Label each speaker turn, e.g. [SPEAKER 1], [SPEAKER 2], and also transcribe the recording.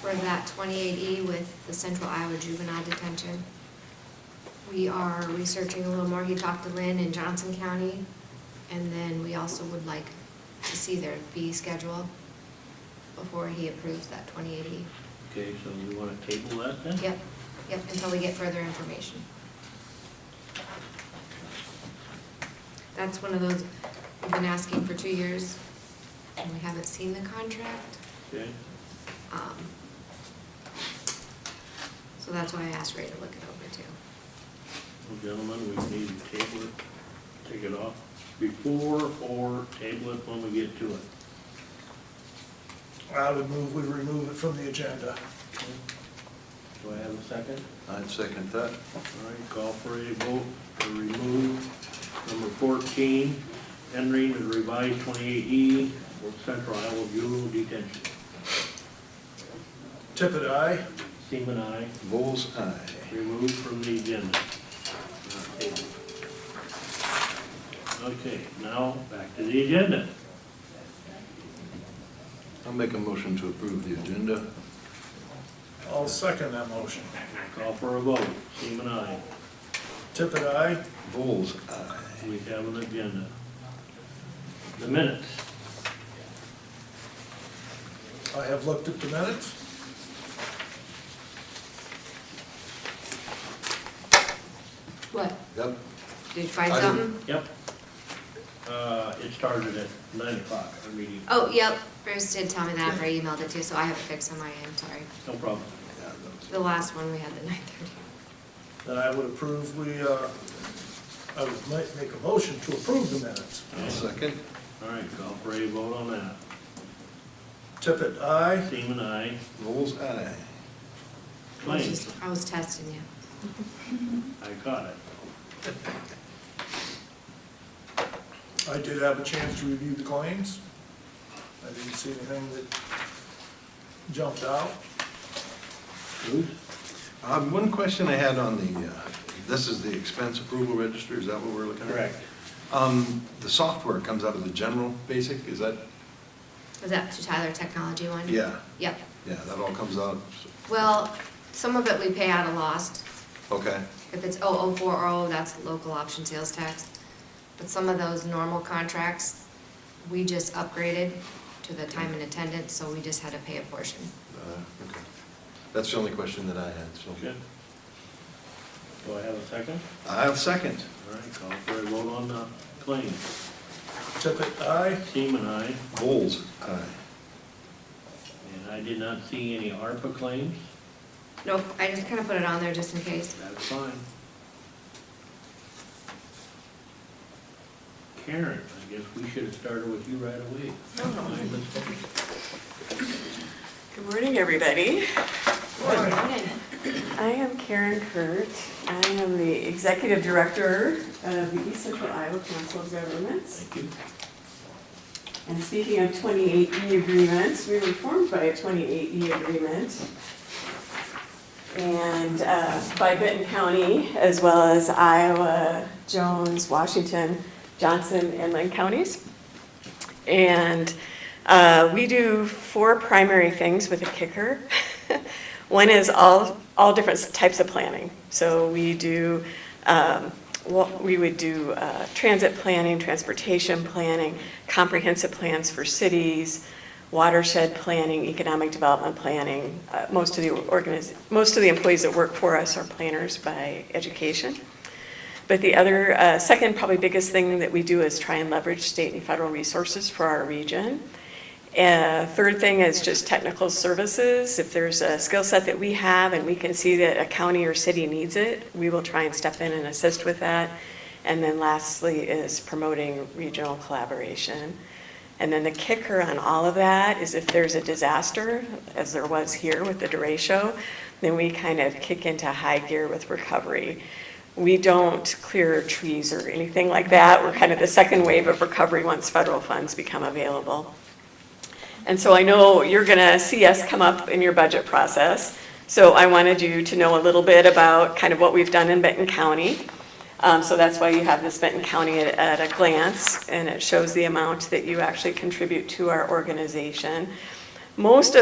[SPEAKER 1] for that 28E with the Central Iowa Juvenile Detention. We are researching a little more. He talked to Lynn in Johnson County, and then we also would like to see their fee schedule before he approves that 28E.
[SPEAKER 2] Okay, so we want to table that then?
[SPEAKER 1] Yep, yep, until we get further information. That's one of those, we've been asking for two years, and we haven't seen the contract.
[SPEAKER 2] Okay,
[SPEAKER 1] Um, So that's why I asked Ray to look it over too.
[SPEAKER 2] well, gentlemen, we need to table it, take it off before or table it when we get to it.
[SPEAKER 3] I would move, we remove it from the agenda.
[SPEAKER 2] Do I have a second?
[SPEAKER 4] I'd second that.
[SPEAKER 2] All right, call for a vote to remove number fourteen, entering the revised twenty-eight E for Central Iowa Bureau Detention.
[SPEAKER 3] Tippit, aye.
[SPEAKER 2] Seaman, I
[SPEAKER 4] Bull's eye.
[SPEAKER 2] removed from the agenda. Okay, now back to the agenda.
[SPEAKER 4] I'll make a motion to approve the agenda.
[SPEAKER 3] I'll second that motion.
[SPEAKER 2] Call for a vote, Seaman, I.
[SPEAKER 3] Tippit, aye.
[SPEAKER 4] Bull's eye.
[SPEAKER 2] We have an agenda. The minutes,
[SPEAKER 3] I have looked at the minutes.
[SPEAKER 1] What,
[SPEAKER 4] Yep,
[SPEAKER 1] did you find
[SPEAKER 4] I didn't-
[SPEAKER 1] something?
[SPEAKER 2] yep. Uh, it started at nine o'clock, our meeting,
[SPEAKER 1] Oh, yep, Bruce did tell me that after I emailed it to you, so I have it fixed on my end, sorry.
[SPEAKER 2] no problem.
[SPEAKER 1] The last one, we had the nine thirty.
[SPEAKER 3] Then I would approve, we, uh, I would ma- make a motion to approve the minutes.
[SPEAKER 4] I'll second.
[SPEAKER 2] All right, call for a vote on that.
[SPEAKER 3] Tippit, aye.
[SPEAKER 2] Seaman, I.
[SPEAKER 4] Bull's eye.
[SPEAKER 1] I was
[SPEAKER 2] Claims,
[SPEAKER 1] just, I was testing you.
[SPEAKER 2] I caught it.
[SPEAKER 3] I did have a chance to review the claims. I didn't see anything that jumped out.
[SPEAKER 2] Bruce?
[SPEAKER 4] Um, one question I had on the, uh, this is the expense approval register, is that what we're looking at? Um, the software comes out of the general basic, is that,
[SPEAKER 1] Was that to Tyler Technology one?
[SPEAKER 4] Yeah.
[SPEAKER 1] Yep.
[SPEAKER 4] yeah, that all comes out,
[SPEAKER 1] Well, some of it we pay out of lost.
[SPEAKER 4] okay,
[SPEAKER 1] If it's 0040, that's local option sales tax. But some of those normal contracts, we just upgraded to the time and attendance, so we just had to pay a portion.
[SPEAKER 4] uh, okay. That's the only question that I had, so.
[SPEAKER 2] Okay. Do I have a second?
[SPEAKER 4] I'll second.
[SPEAKER 2] All right, call for a vote on the claims.
[SPEAKER 3] Tippit, aye.
[SPEAKER 2] Seaman, I.
[SPEAKER 4] Bull's eye.
[SPEAKER 2] And I did not see any ARPA claims.
[SPEAKER 1] Nope, I just kind of put it on there just in case.
[SPEAKER 2] That's fine. Karen, I guess we should have started with you right away. Mine was-
[SPEAKER 5] Good morning, everybody.
[SPEAKER 1] Morning.
[SPEAKER 5] I am Karen Kurt. I am the Executive Director of the East Central Iowa Council of Governments.
[SPEAKER 2] Thank you.
[SPEAKER 5] And speaking of 28E agreements, we were informed by a 28E agreement. And uh, by Benton County, as well as Iowa, Jones, Washington, Johnson, and Lynn counties. And uh, we do four primary things with a kicker. One is all, all different types of planning. So we do, um, what- we would do uh, transit planning, transportation planning, comprehensive plans for cities, watershed planning, economic development planning. Uh, Most of the organiz, most of the employees that work for us are planners by education. But the other, uh, second probably biggest thing that we do is try and leverage state and federal resources for our region. Uh, Third thing is just technical services. If there's a skill set that we have and we can see that a county or city needs it, we will try and step in and assist with that. And then lastly is promoting regional collaboration. And then the kicker on all of that is if there's a disaster, as there was here with the derecho, then we kind of kick into high gear with recovery. We don't clear trees or anything like that. We're kind of the second wave of recovery once federal funds become available. And so I know you're going to see us come up in your budget process. So I wanted you to know a little bit about kind of what we've done in Benton County. Um, So that's why you have this Benton County at- at a glance, and it shows the amount that you actually contribute to our organization. Most of